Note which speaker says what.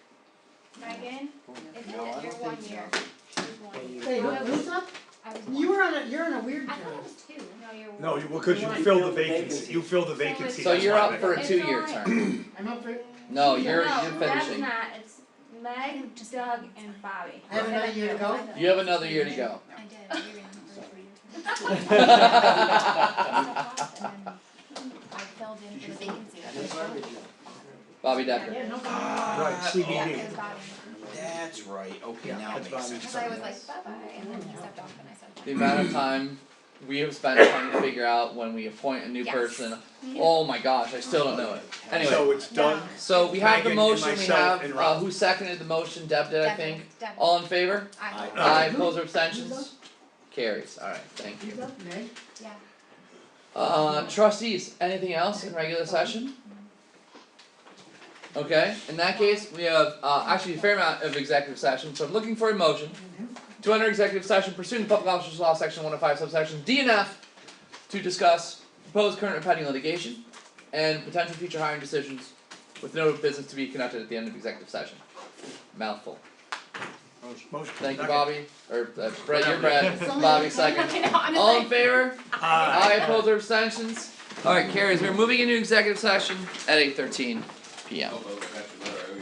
Speaker 1: Megan,
Speaker 2: Oh,
Speaker 1: it's
Speaker 3: No, I
Speaker 1: your
Speaker 3: don't
Speaker 1: one
Speaker 3: think
Speaker 1: year.
Speaker 3: so.
Speaker 1: She's one year.
Speaker 4: Hey,
Speaker 1: No, I
Speaker 4: what,
Speaker 1: was-
Speaker 4: Lisa?
Speaker 1: I was one.
Speaker 4: You were on a, you're on a weird
Speaker 1: I thought it
Speaker 4: term.
Speaker 1: was two. No, you're one.
Speaker 5: No, you, well, cause you filled the vacancy, you filled the
Speaker 1: So it's-
Speaker 5: vacancy.
Speaker 2: So
Speaker 5: that's
Speaker 2: you're
Speaker 5: why
Speaker 2: up
Speaker 5: they-
Speaker 2: for a
Speaker 1: It's
Speaker 2: two-year
Speaker 1: not-
Speaker 2: term.
Speaker 4: I'm up for,
Speaker 2: No,
Speaker 1: No,
Speaker 2: you're, you're finishing.
Speaker 1: that's not, it's Meg, Doug, and Bobby.
Speaker 4: I have another year to go.
Speaker 2: You have another year to go.
Speaker 6: I did, I did remember for your term. And then I filled in for the vacancy.
Speaker 3: That's why we do.
Speaker 2: Bobby Decker.
Speaker 4: yeah, no
Speaker 5: Right,
Speaker 3: Ah,
Speaker 5: CBD.
Speaker 6: It was Bobby.
Speaker 3: That's right, okay,
Speaker 5: Yeah,
Speaker 3: now
Speaker 5: that's
Speaker 3: it makes
Speaker 5: fine.
Speaker 3: sense.
Speaker 6: Cause I was like, bye bye, and then he stepped off and I said.
Speaker 2: The amount of time we have spent trying to figure out when we appoint a new
Speaker 6: Yes.
Speaker 2: person. Oh my gosh, I still don't know it. Anyway,
Speaker 5: So it's done,
Speaker 2: so we have the
Speaker 5: Megan and
Speaker 2: motion, we
Speaker 5: myself
Speaker 2: have,
Speaker 5: and
Speaker 2: uh,
Speaker 5: Rob.
Speaker 2: who seconded the motion? Deb did, I think.
Speaker 6: Devin, Devin,
Speaker 2: All in favor?
Speaker 6: I,
Speaker 3: Aye.
Speaker 2: Aye,
Speaker 4: Who?
Speaker 2: opposed or
Speaker 4: Who's
Speaker 2: abstentions? Carries, alright, thank you.
Speaker 4: Who's up, Meg?
Speaker 6: yeah,
Speaker 2: Uh, trustees, anything else in regular session? Okay, in that case, we have, uh, actually a fair amount of executive session, so I'm looking for a motion to enter executive session pursuant to public officers law, section one oh five subsection DNF, to discuss proposed current or pending litigation and potential future hiring decisions with no business to be conducted at the end of executive session. Mouthful.
Speaker 5: motion.
Speaker 2: Thank you,
Speaker 5: Second.
Speaker 2: Bobby, or, uh, Brett, your Brett,
Speaker 6: Somebody-
Speaker 2: Bobby second.
Speaker 6: I know, I'm just
Speaker 2: All
Speaker 6: like.
Speaker 2: in favor?
Speaker 5: Aye.
Speaker 2: Aye, opposed or abstentions? Alright, carries, we're moving into executive session at eight thirteen P M.
Speaker 3: Oh, okay.